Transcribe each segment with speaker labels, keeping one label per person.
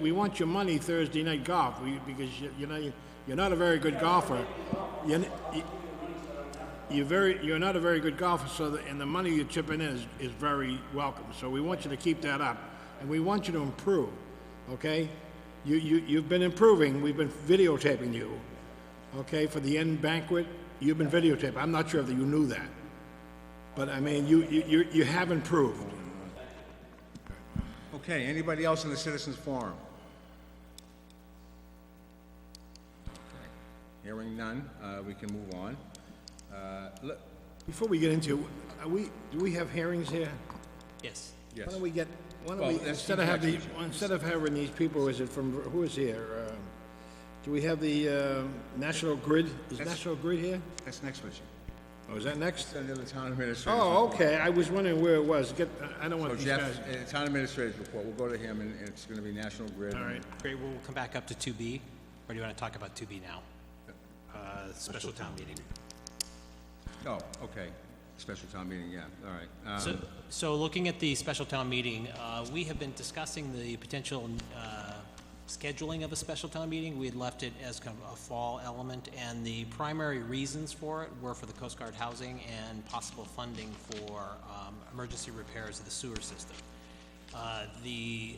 Speaker 1: we want your money Thursday night golf, we, because you, you know, you're not a very good golfer. You're, n- you- you're very, you're not a very good golfer, so, the- and the money you're chipping in is, is very welcome. So we want you to keep that up, and we want you to improve, okay? You, you, you've been improving, we've been videotaping you, okay? For the end banquet, you've been videotaped. I'm not sure if you knew that. But I mean, you, you, you- you have improved.
Speaker 2: Okay, anybody else in the citizens forum? Hearing none, uh, we can move on. Uh, le-
Speaker 1: Before we get into, are we, do we have hearings here?
Speaker 3: Yes.
Speaker 1: Why don't we get, why
Speaker 2: Well,
Speaker 1: don't we,
Speaker 2: that's
Speaker 1: instead of having,
Speaker 2: exactly-
Speaker 1: instead of having these people, is it from, who is here? Um, Do we have the um, National Grid? Is National Grid here?
Speaker 2: That's next with you.
Speaker 1: Oh, is that next?
Speaker 2: Under the town administrator.
Speaker 1: Oh, okay, I was wondering where it was. Get, I don't want
Speaker 2: So
Speaker 1: these
Speaker 2: Jeff,
Speaker 1: guys.
Speaker 2: uh, town administrator's report, we'll go to him, and it's gonna be National Grid.
Speaker 1: All right,
Speaker 3: Great, we'll come back up to 2B, or do you want to talk about 2B now? Uh, Special town meeting.
Speaker 2: Oh, okay, special town meeting, yeah, all right. Uh,
Speaker 3: So, so looking at the special town meeting, uh, we have been discussing the potential uh, scheduling of a special town meeting. We had left it as kind of a fall element, and the primary reasons for it were for the Coast Guard housing and possible funding for um, emergency repairs of the sewer system. Uh, The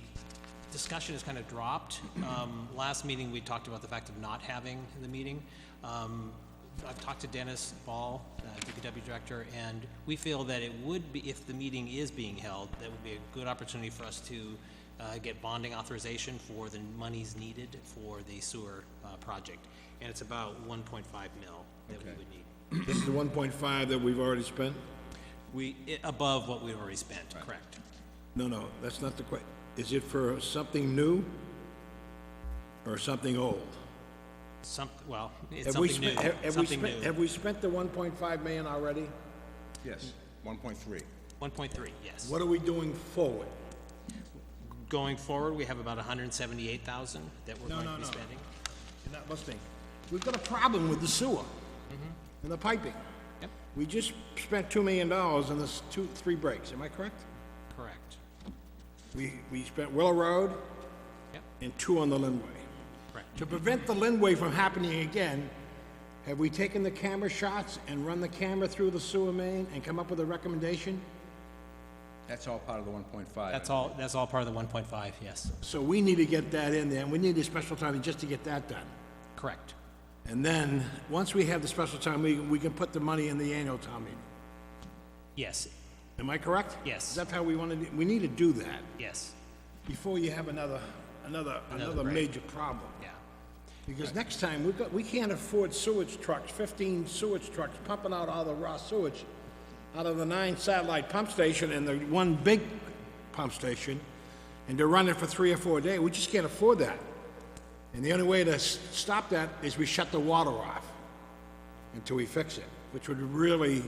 Speaker 3: discussion has kind of dropped. Um, Last meeting, we talked about the fact of not having the meeting. Um, I've talked to Dennis Ball, uh, DPW Director, and we feel that it would be, if the meeting is being held, that would be a good opportunity for us to uh, get bonding authorization for the monies needed for the sewer uh, project. And it's about 1.5 mil that we
Speaker 2: Okay.
Speaker 3: would need.
Speaker 1: this is the one point five that we've already spent?
Speaker 3: We, i- above what we've already spent, correct?
Speaker 1: No, no, that's not the que, is it for something new? Or something old?
Speaker 3: Some, well, it's
Speaker 1: Have we
Speaker 3: something new,
Speaker 1: spent? have- Have we
Speaker 3: something
Speaker 1: spent?
Speaker 3: new.
Speaker 1: Have we spent the 1.5 million already?
Speaker 2: Yes, one point three.
Speaker 3: 1.3, yes.
Speaker 1: What are we doing forward?
Speaker 3: Going forward, we have about 178,000 that we're
Speaker 1: No,
Speaker 3: going
Speaker 1: no,
Speaker 3: to be
Speaker 1: no.
Speaker 3: spending.
Speaker 1: You're not listening. We've got a problem with the sewer and the piping.
Speaker 3: Yep,
Speaker 1: We just spent $2 million on this two, three breaks, am I correct?
Speaker 3: correct.
Speaker 1: We, we spent Willow Road
Speaker 3: Yep,
Speaker 1: and two on the Lindway.
Speaker 3: correct.
Speaker 1: To prevent the Lindway from happening again, have we taken the camera shots and run the camera through the sewer main and come up with a recommendation?
Speaker 2: That's all part of the one point five.
Speaker 3: That's all, that's all part of the 1.5, yes,
Speaker 1: So we need to get that in there, and we need a special time just to get that done.
Speaker 3: correct.
Speaker 1: And then, once we have the special town meeting, we can put the money in the annual town meeting.
Speaker 3: Yes,
Speaker 1: Am I correct?
Speaker 3: Yes.
Speaker 1: That's how we want to, we need to do that
Speaker 3: yes,
Speaker 1: before you have another, another, another
Speaker 3: break.
Speaker 1: major problem.
Speaker 3: yeah,
Speaker 1: Because next time, we've got, we can't afford sewage trucks, fifteen sewage trucks pumping out all the raw sewage out of the nine satellite pump station and the one big pump station, and to run it for three or four days. We just can't afford that. And the only way to s- stop that is we shut the water off until we fix it, which would really,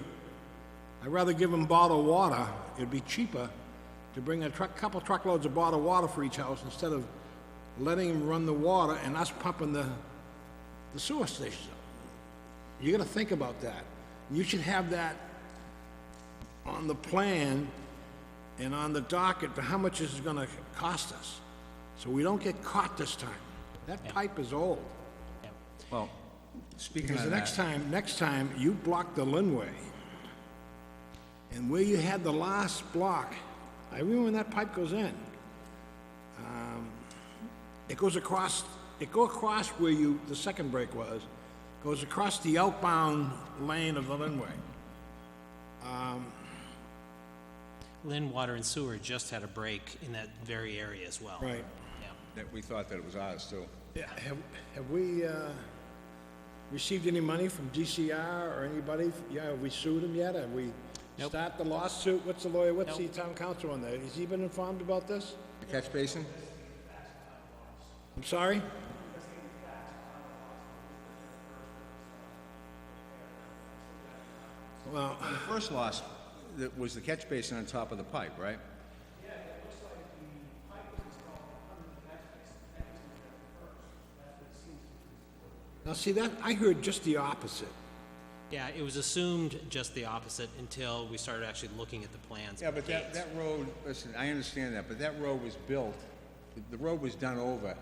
Speaker 1: I'd rather give them bottled water. It'd be cheaper to bring a truck, couple truckloads of bottled water for each house instead of letting them run the water and us pumping the, the sewer station. You gotta think about that. You should have that on the plan and on the docket for how much this is gonna cost us. So we don't get caught this time. That pipe is old.
Speaker 3: yeah.
Speaker 2: Well, speaking
Speaker 1: Because
Speaker 2: of
Speaker 1: the next
Speaker 2: that,
Speaker 1: time, next time, you block the Linway. And where you had the last block, I remember when that pipe goes in. um, It goes across, it go across where you, the second break was, goes across the outbound lane of the Linway.
Speaker 3: Lynn Water and Sewer just had a break in that very area as well.
Speaker 1: Right.
Speaker 3: Yeah.
Speaker 2: that we thought that it was ours too.
Speaker 1: Yeah, have, have we, uh, received any money from DCR or anybody? Yeah, have we sued him yet? Have we
Speaker 3: Nope.
Speaker 1: start the lawsuit? What's the lawyer, what's the
Speaker 3: Nope.
Speaker 1: town council on that? Has he been informed about this?
Speaker 2: The catch basin?
Speaker 1: I'm sorry? Well,
Speaker 2: The first loss that was the catch basin on top of the pipe, right?
Speaker 1: now see that, I heard just the opposite.
Speaker 3: Yeah, it was assumed just the opposite until we started actually looking at the plans.
Speaker 2: Yeah,
Speaker 3: and
Speaker 2: but
Speaker 3: the
Speaker 2: that,
Speaker 3: dates.
Speaker 2: that road, listen, I understand that, but that road was built the road was done over